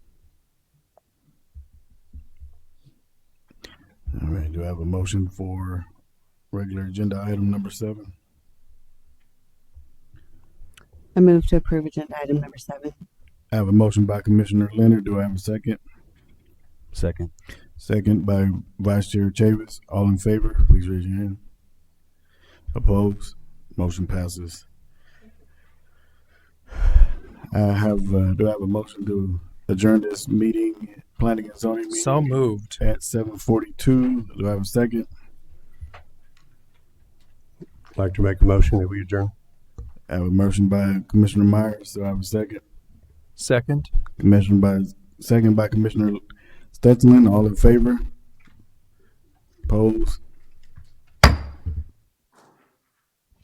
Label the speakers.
Speaker 1: do I have a motion for regular agenda item number seven?
Speaker 2: I move to approve agenda item number seven.
Speaker 1: I have a motion by Commissioner Leonard. Do I have a second?
Speaker 3: Second.
Speaker 1: Second by Vice Chair Chavis. All in favor, please raise your hand. Opposed? Motion passes. I have, uh, do I have a motion to adjourn this meeting, planning and zoning meeting?
Speaker 4: So moved.
Speaker 1: At seven forty-two. Do I have a second?
Speaker 3: I'd like to make a motion that we adjourn.
Speaker 1: I have a motion by Commissioner Myers. Do I have a second?
Speaker 4: Second.
Speaker 1: Commissioner by, second by Commissioner Stetson, all in favor? Opposed?